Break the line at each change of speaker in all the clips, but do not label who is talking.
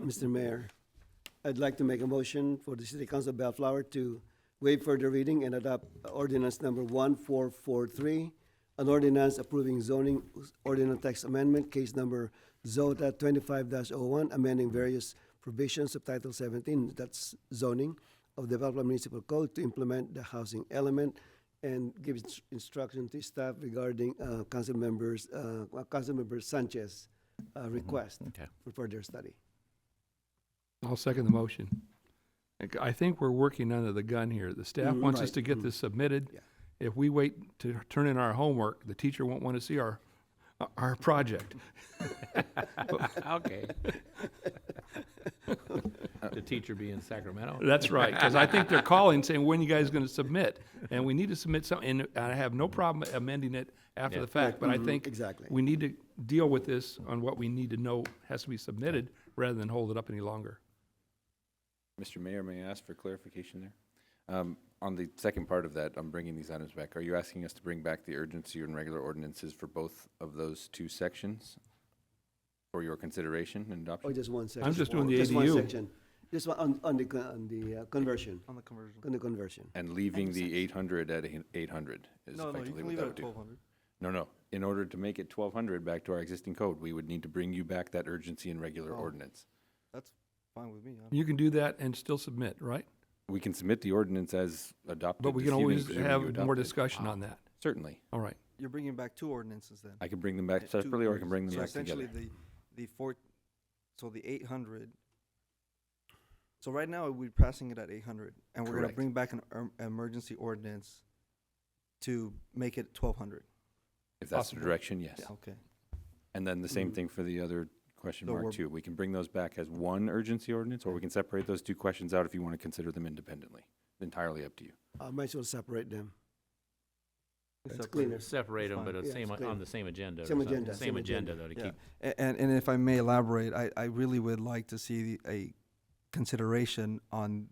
Mr. Mayor. I'd like to make a motion for the City Council of Bellflower to waive further reading and adopt ordinance number one four four three, an ordinance approving zoning ordinance text amendment, case number ZOTA twenty-five oh one amending various provisions of Title seventeen, that's zoning, of the Bellflower Municipal Code to implement the housing element and give ins- instruction to staff regarding, uh, council members, uh, Councilmember Sanchez, uh, request
Okay.
for further study.
I'll second the motion. I c- I think we're working under the gun here. The staff
Mm,
wants us
right.
to get
Mm.
this submitted.
Yeah.
If we wait to turn in our homework, the teacher won't want to see our, our project.
Okay. The teacher be in Sacramento?
That's right, because I think they're calling saying, when you guys going to submit? And we need to submit something, and I have no problem amending it after
Yeah.
the fact, but I
Mhm,
think
exactly.
we need to deal with this on what we need to know has to be submitted rather than hold it up any longer.
Mr. Mayor, may I ask for clarification there? Um, On the second part of that, I'm bringing these items back. Are you asking us to bring back the urgency and regular ordinances for both of those two sections for your consideration and
Or
adoption?
Oh, just one section?
I'm just doing the
Just one
ADU.
section. Just one, on, on the, con- on the uh, conversion,
On the conversion.
on the conversion.
And leaving the 800 at eight- 800 is
No, no, you
effectively
can
what
leave
that
it at
would do.
twelve hundred.
No, no. In order to make it 1,200 back to our existing code, we would need to bring you back that urgency and regular
Oh.
ordinance.
Fine with me. I don't-
You can do that and still submit, right?
We can submit the ordinance as adopted.
But we
this
can
evening,
always
presuming you
have
adopt
more
it.
discussion on that.
Certainly.
All right.
You're bringing back two ordinances then.
I can bring them back
Uh, two
separately or I can
ordinances.
bring them
So
back together.
essentially, the, the four, so the eight hundred. So right now, we're passing it at eight hundred, and we're gonna
Correct.
bring back an er- emergency ordinance to make it twelve hundred.
If that's the
possible.
direction, yes.
Okay.
And then the same
Mhm.
thing for the other question
So
mark
we're-
too. We can bring those back as one urgency ordinance, or we can separate those two questions out if you want to consider them independently. Entirely up to you.
I might as well separate them.
We
That's
separate
cleaner.
it.
Separate them, but
Fine.
on
Yeah,
same,
it's clear.
on the same agenda. or
Same
something.
agenda,
Same
same
agenda,
agenda.
though, to
Yeah.
keep.
A- And, and if I may elaborate, I, I really would like to see a consideration on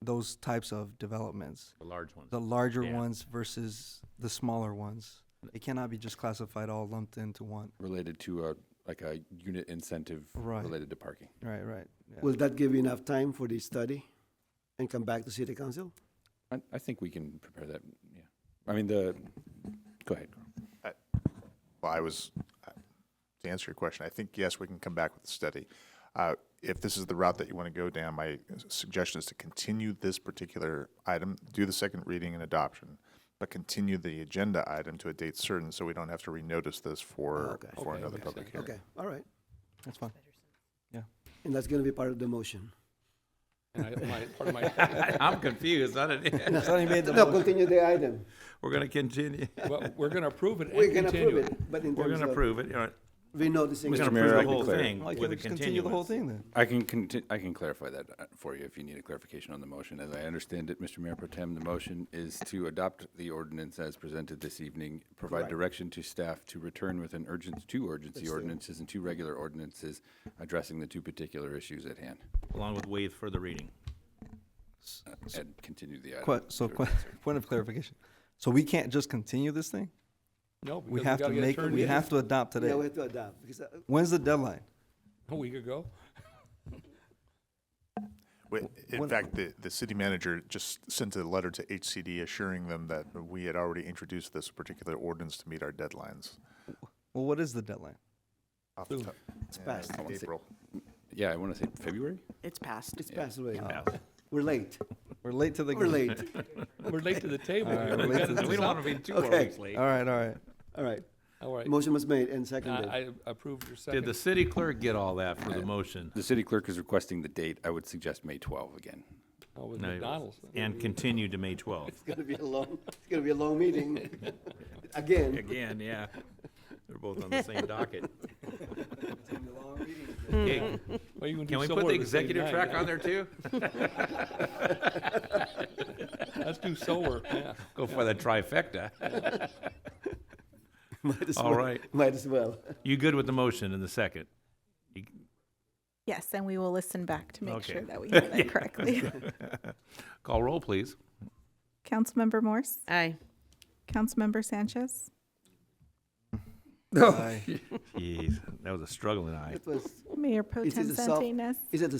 those types of developments.
The large ones.
the larger
Yeah.
ones versus the smaller ones. It cannot be just classified all lumped into one.
Related to a, like a unit incentive
Right.
related to parking.
Right, right. yeah.
Will that give you enough time for the study and come back to city council?
I, I think we can prepare that, yeah. I mean, the, go ahead. Carl.
Well, I was, I- to answer your question, I think, yes, we can come back with the study. Uh, If this is the route that you want to go down, my suggestion is to continue this particular item, do the second reading and adoption, but continue the agenda item to a date certain, so we don't have to renotice this for,
Oh, Okay.
for
Okay,
another
okay.
public hearing.
Okay, all right.
That's fine.
And that's gonna be part of the motion.
And I, my, part of my,
I'm confused. I didn't,
Sonny made the
No,
motion.
continue the item.
we're gonna continue.
well, we're gonna approve it and
We're gonna
continue
approve
it.
it, but in
We're
terms
gonna
of
approve it. All right.
renoticing.
We're gonna
Mr. Mayor,
approve
I
the
can
whole
clarify.
thing
Why can't
with
we
a
just continue the whole
continuance.
thing then?
I can conti- I can clarify that uh, for you if you need a clarification on the motion. As I understand it, Mr. Mayor Pro Tem, the motion is to adopt the ordinance as presented this evening, provide direction to staff to return with an urgent, two urgency ordinances and two regular ordinances addressing the two particular issues at hand,
Along with waive further reading.
and continue the
Que-
item.
So,
to
que-
adjourn.
point of clarification. So we can't just continue this thing?
No,
We
because
have to
gotta get it
make,
turned
we
in
have to adopt
Yeah, we
today.
have to adopt, because, uh,
When's the deadline?
A week ago.
Wi- In
One-
fact, the, the city manager just sent a letter to HCD assuring them that we had already introduced this particular ordinance to meet our deadlines.
Well, what is the deadline?
Off the top-
it's
Yeah,
passed,
I wanna say-
April.
Yeah, I want to say February?
It's passed.
it's passed already.
Uh,
We're late,
We're late to the
we're
game.
late.
We're late to the table.
All
We
right, we're late
gotta
to the
do
We don't
something.
wanna be two more
Okay.
weeks late.
All right, all right.
All right,
All right.
motion was made and
I,
seconded.
I approve your
Did the
second.
city clerk get all that for the motion?
The city clerk is requesting the date. I would suggest May 12 again.
Oh, with
No, it was-
McDonald's.
And continue to May twelfth.
It's gonna be a long, it's gonna be a long meeting, again.
Again, yeah. They're both on the same docket. Okay,
Well, you do
Can we
some
put
more
the
at same
executive
time,
track
yeah.
on there too?
Let's do solar, yeah.
Go for the trifecta.
Might as
All
well-
right.
Might as well.
You good with the motion in the second? You-
Yes, and we will listen back to make
Okay.
sure that we hear that correctly.
Call roll, please.
Councilmember Morse,
Aye.
Councilmember Sanchez,
No.
Jeez, that was a struggling eye.
It was,
Mayor Pro
It
Tem
is a self-
Santinas?
is it the